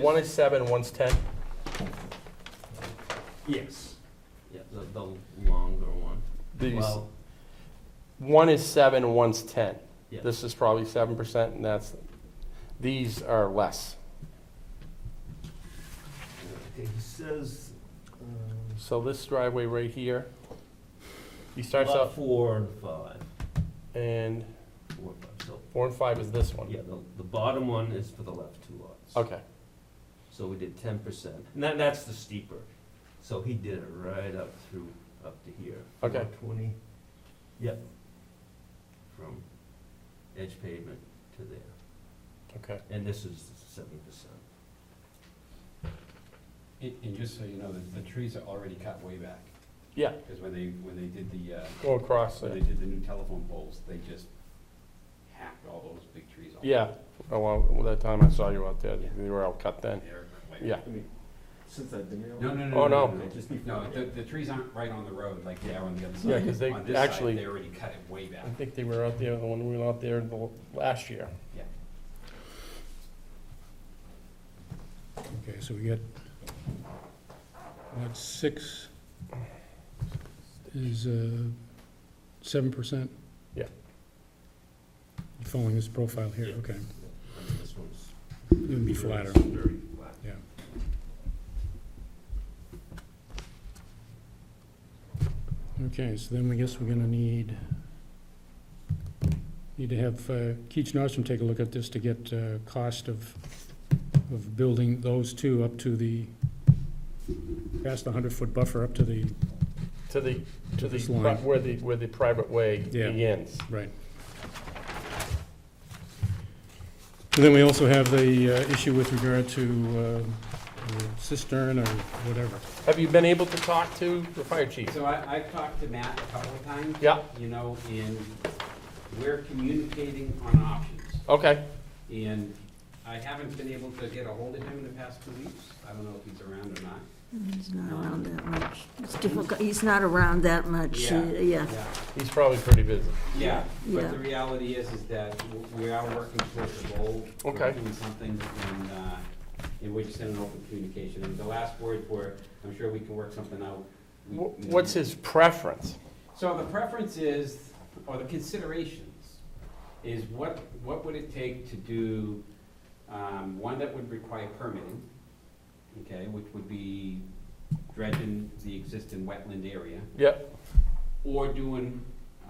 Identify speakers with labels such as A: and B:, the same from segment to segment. A: One is seven, one's 10.
B: Yes. Yeah, the, the longer one.
A: These,
B: Well,
A: one is seven, one's 10.
B: yeah.
A: This is probably 7%, and that's, these are less.
C: Okay, he says, um,
A: So this driveway right here, he starts
B: Lot
A: out,
B: four and five,
A: and
B: four and five, so,
A: four and five is this one.
B: yeah, the, the bottom one is for the left two lots.
A: Okay,
B: So we did ten percent, and that, that's the steeper, so he did it right up through, up to here.
A: okay,
C: twenty,
B: Yep. From edge pavement to there,
A: okay.
B: and this is seven percent.
D: And, and just so you know, the, the trees are already cut way back.
A: Yeah.
D: Because when they, when they did the, uh,
A: Go across
D: when they
A: there.
D: did the new telephone poles, they just hacked all those big trees off.
A: Yeah, oh, well, that time I saw you out there,
D: Yeah.
A: they were all cut then.
D: They're way
A: Yeah,
D: back.
C: since I've been here.
D: No, no,
A: Oh,
D: no, no,
A: no.
D: no, just, no, the, the trees aren't right on the road like they are on the other side.
A: Yeah, 'cause they
D: On this side,
A: actually-
D: They already cut it way back.
A: I think they were out there, the one we were out there the last year.
E: Okay, so we get, lot six is uh, seven percent?
A: Yeah.
E: Following this profile here, okay.
B: I mean, this one's.
E: It would be flatter.
B: Very flat.
E: Yeah. Okay, so then we guess we're gonna need, need to have uh, Keach Nordstrom take a look at this to get uh, cost of, of building those two up to the, past the hundred-foot buffer up to the,
A: To the, to the,
E: this
A: pri-
E: line.
A: where the, where the private way
E: Yeah.
A: begins.
E: right. And then we also have the uh, issue with regard to uh, cistern or whatever.
A: Have you been able to talk to the fire chief?
D: So I, I've talked to Matt a couple of times.
A: Yeah.
D: You know, and we're communicating on options.
A: Okay,
D: And I haven't been able to get a hold of him in the past two weeks. I don't know if he's around or not.
F: He's not around that much. It's difficult, he's not around that much, uh, yeah.
A: he's probably pretty busy.
D: Yeah, but
F: Yeah.
D: the reality is, is that w- we are working towards a goal. We're
A: Okay.
D: Doing something, and, uh, and we're just in an open communication. And the last words were, I'm sure we can work something out. We-
A: Wh- What's his preference?
D: So the preference is, or the considerations, is what, what would it take to do, um, one that would require permitting, okay, which would be dredging the existing wetland area,
A: Yep,
D: or doing.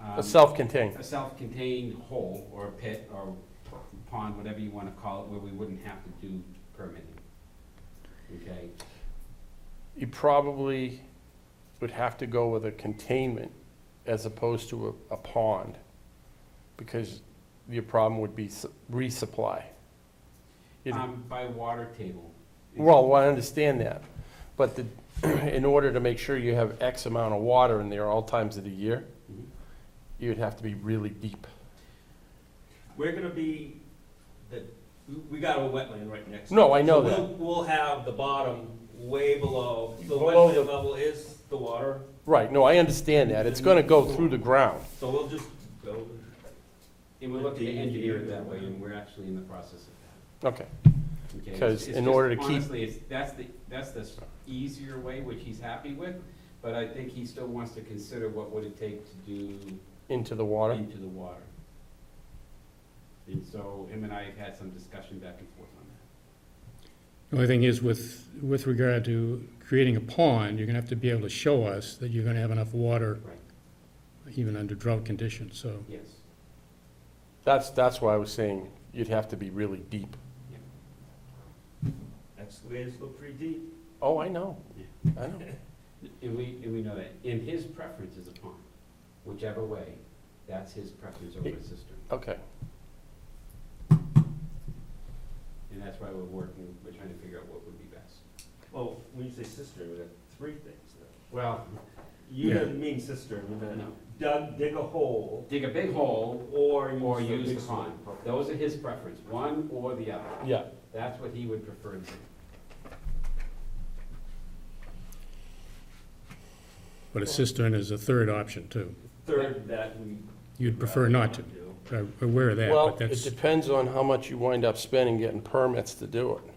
A: a
D: um,
A: self-contained.
D: a self-contained hole or a pit or pond, whatever you wanna call it, where we wouldn't have to do permitting. Okay,
A: You probably would have to go with a containment as opposed to a, a pond, because your problem would be s- resupply. It-
D: um, by water table.
A: Well, I understand that, but the, in order to make sure you have X amount of water in there all times of the year,
D: Mhm.
A: you'd have to be really deep.
B: We're gonna be, the, we got a wetland right next to it.
A: No, I know
B: So
A: that.
B: we'll- We'll have the bottom way below, the
A: Below the-
B: wetland level is the water,
A: Right, no, I understand that, it's gonna go through the ground.
B: so we'll just go.
D: And we're looking to engineer it that way, and we're actually in the process of
A: Okay,
D: that. okay? It's-
A: 'Cause
D: it's
A: in
D: just-
A: order to keep-
D: Honestly, it's, that's the, that's the easier way, which he's happy with, but I think he still wants to consider what would it take to do
A: into the water,
D: into the water. And so him and I have had some discussion back and forth on that.
E: The only thing is with, with regard to creating a pond, you're gonna have to be able to show us that you're gonna have enough water
D: Right.
E: even under drought conditions, so.
D: Yes.
A: that's, that's why I was saying you'd have to be really deep.
B: Excavators look pretty deep.
A: Oh, I know, I know.
D: And we, and we know that. And his preference is a pond, whichever way, that's his preference over a cistern.
A: Okay,
D: And that's why we're working, we're trying to figure out what would be best.
B: Well, when you say cistern, we got three things now.
D: Well,
B: You
E: Yeah.
B: didn't mean cistern, you meant
D: no.
B: dug, dig a hole,
D: dig a big hole
B: or use.
D: or
B: the
D: use
B: big
D: the pond.
B: stone. Okay.
D: Those are his preference, one or the other.
A: yeah,
D: That's what he would prefer to do.
E: But a cistern is a third option too.
B: Third, that we.
E: You'd prefer not to.
B: do.
E: I'm aware of that,
A: well,
E: but
A: it
E: that's,
A: depends on how much you wind up spending getting permits to do it.